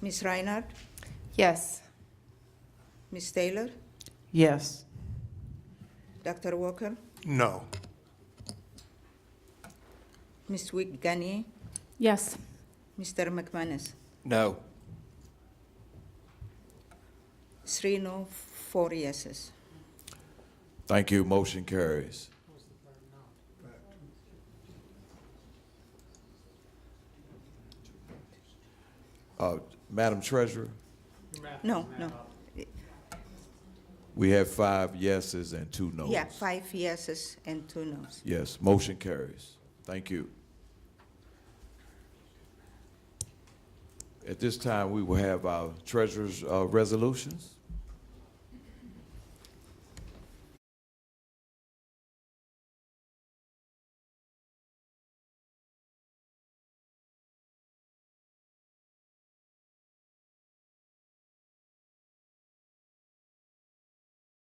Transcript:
Ms. Reinhardt, Yes. Ms. Taylor, Yes. Dr. Walker, No. Ms. Wig Gagne, Yes. Mr. McManus. No. Three no, four yeses. Thank you. Motion carries. Uh, Madam Treasurer, No, no. we have five yeses and two noes. Yeah, five yeses and two noes. Yes, motion carries. Thank you. At this time, we will have our treasurer's uh, resolutions.